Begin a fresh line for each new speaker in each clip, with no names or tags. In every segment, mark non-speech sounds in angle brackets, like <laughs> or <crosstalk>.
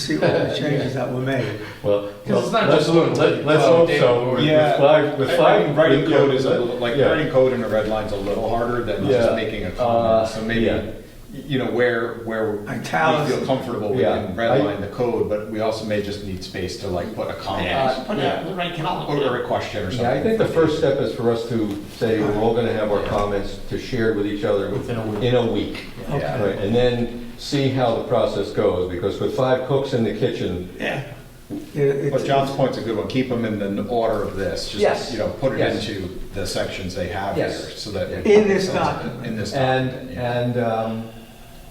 see all the changes that were made.
Well,
Because it's not
let's-
just looking
let-
like
Let's
cloud
hope
data
so.
or-
With-
Yeah.
With five, with
I
five.
think Writing
with-
code is a little, like,
yeah.
writing code in a red line's a little harder than
Yeah.
just making a
Uh,
comment. So maybe,
yeah.
y- you know, where, where we
Italics.
feel comfortable, we
Yeah.
can
I-
redline the code, but we also may just need space to like put a
Yeah,
comment
Uh, put
yeah.
a, the right
or
column.
or a question or something.
Yeah, I think the first step is for us to say, we're all gonna have our comments to share with each other
Within a week.
in a week.
Yeah.
Right, And then see how the process goes, because with five cooks in the kitchen.
Yeah.
But John's point's a good one, keep them in the order of this,
Yes.
just, you know, put it
Yes.
into the sections they have here,
Yes.
so that.
In this document.
In this
And,
document, yeah.
and um,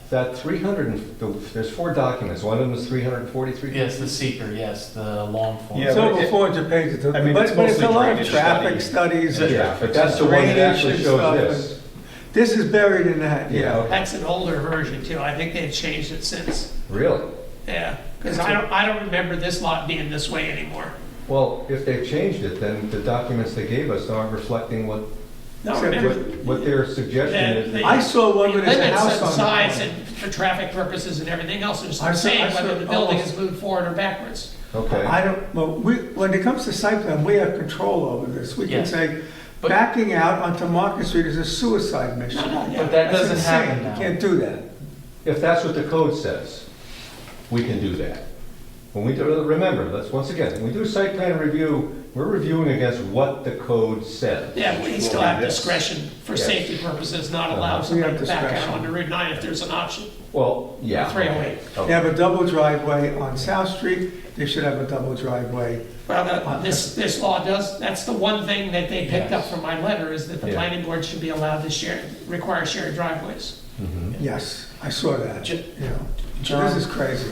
that 300, and- there's four documents, one of them is 343.
Yes, the seeker, yes, the long form.
Yeah,
It's over
but it-
400 pages,
I mean,
but
it's
but it's a
mostly
lot of
drainage
traffic studies. and-
Yeah, but that's the one that actually
Drainage and
shows
stuff.
this.
This is buried in that,
Yeah,
yeah.
okay.
That's an older version too. I think they've changed it since.
Really?
Yeah, because I don't, I don't remember this lot being this way anymore.
Well, if they've changed it, then the documents they gave us aren't reflecting what,
No,
Except
what
remember,
what their suggestion
That
is.
the-
I saw
the
one with a
limits
house
and
on
size
it.
and for traffic purposes and everything else is
I
the
saw- I
same,
saw
whether the building
almost-
is moved forward or backwards.
Okay,
I don't, well, we, when it comes to site plan, we have control over this. We can
Yes.
say,
But-
backing out onto Market Street is a suicide mission.
No, no,
But
yeah.
that
That's
doesn't
insane.
happen now.
You can't do that.
if that's what the code says, we can do that. When we do, remember, let's, once again, when we do site plan review, we're reviewing against what the code says.
Yeah, we still
Well,
have
this-
discretion for
Yes.
safety purposes, not
Uh-huh.
allow
We
somebody
have
to back out
discretion.
onto Route 9 if there's an option.
Well, yeah.
Three oh eight.
They
Okay.
have a double driveway on South Street, they should have a double driveway.
Well, that- uh, this, this law does, that's the one thing that they picked up
Yes.
from my letter, is that the
Yeah.
planning board should be allowed to share, require shared driveways.
Mm-hmm.
Yes, I saw that,
Ju-
you know.
John-
This is crazy.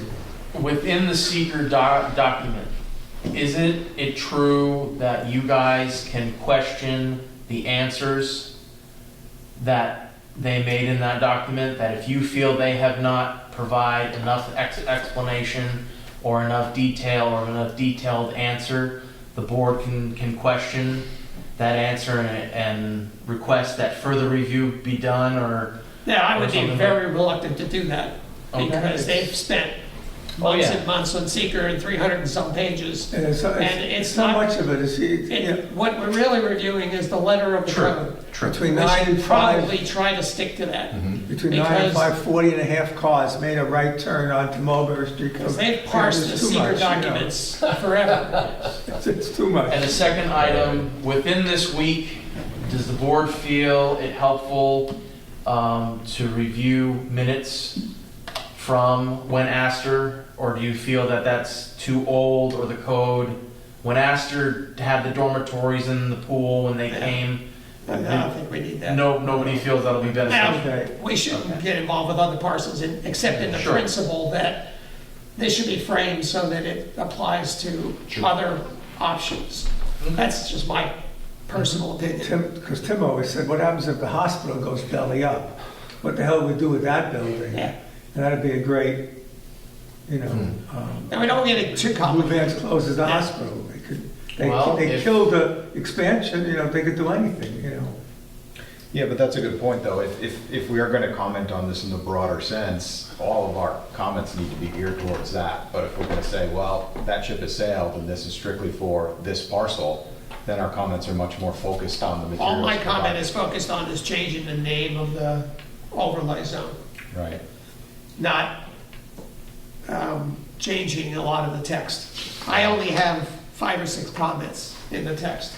Within the seeker doc- document, isn't it true that you guys can question the answers that they made in that document? That if you feel they have not provide enough ex- explanation or enough detail or enough detailed answer, the board can, can question that answer and, and request that further review be done or?
Yeah, I
Or
would be
something like-
very reluctant to do that,
Okay.
because they've spent
Oh,
months
yeah.
and months on seeker and 300 and some pages.
And it's,
And
it's
it's
so
not-
much of it is, yeah,
And what we're really reviewing is the letter of the code.
between
We
nine and
should
five,
probably try to stick to that,
between nine and
because-
five, 40 and a half cars made a right turn onto Mulberry Street.
because they've
Yeah,
parsed
it's too much,
the seeker
you know.
documents forever.
<laughs> It's it's too much.
And the second item, within this week, does the board feel it helpful um, to review minutes from when Aster? Or do you feel that that's too old or the code? When Aster had the dormitories and the pool when they
Yeah.
came,
I don't think we need that.
no, nobody feels that'll be beneficial.
Okay.
We shouldn't get involved with other parcels, in- except in the
Sure.
principle that this should be framed so that it applies to other options.
Mm-hmm.
That's just my personal opinion.
Tim, because Tim always said, what happens if the hospital goes belly up? What the hell would we do with that building?
Yeah.
And that'd be a great, you know,
Hmm.
um,
And we don't get it too
Blue
complicated.
Vans closes the
Yeah.
hospital. They could, they,
Well,
they
if-
killed the expansion, you know, they could do anything, you know.
Yeah, but that's a good point, though. If, if, if we are gonna comment on this in the broader sense, all of our comments need to be geared towards that. But if we're gonna say, well, that ship has sailed and this is strictly for this parcel, then our comments are much more focused on the materials.
All my comment
provided.
is focused on is changing the name of the overlay zone,
Right.
not um, changing a lot of the text. I only have five or six comments in the text.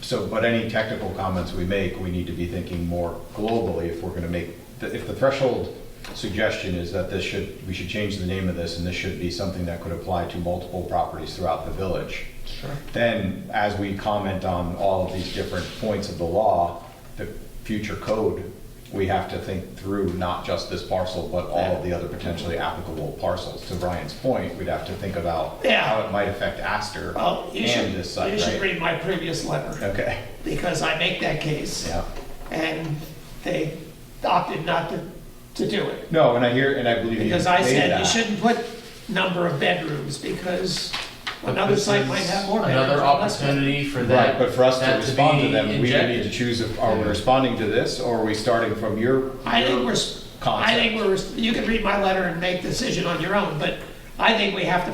So, but any technical comments we make, we need to be thinking more globally if we're gonna make, if the threshold suggestion is that this should, we should change the name of this and this should be something that could apply to multiple properties throughout the village. Sure. Then, as we comment on all of these different points of the law, the future code, we have to think through not just this parcel, but all of the other potentially applicable parcels. To Ryan's point, we'd have to think about
Yeah.
how it might affect Astor
Well, you should,
and this site,
you should
right?
read my previous letter,
Okay,
because I make that case.
yeah.
And they opted not to, to do it.
No, and I hear, and I believe you made
Because I said,
that.
you shouldn't put number of bedrooms, because another
This
site
is
might have more bedrooms.
Another
or less bedrooms.
opportunity for
Right,
that.
but for us to
that
respond to
be
them, we need to
injected.
choose if, are we responding to this, or are we starting from your?
I think we're,
your
s- I
concept?
think we're, s- you can read my letter and make decision on your own, but I think we have to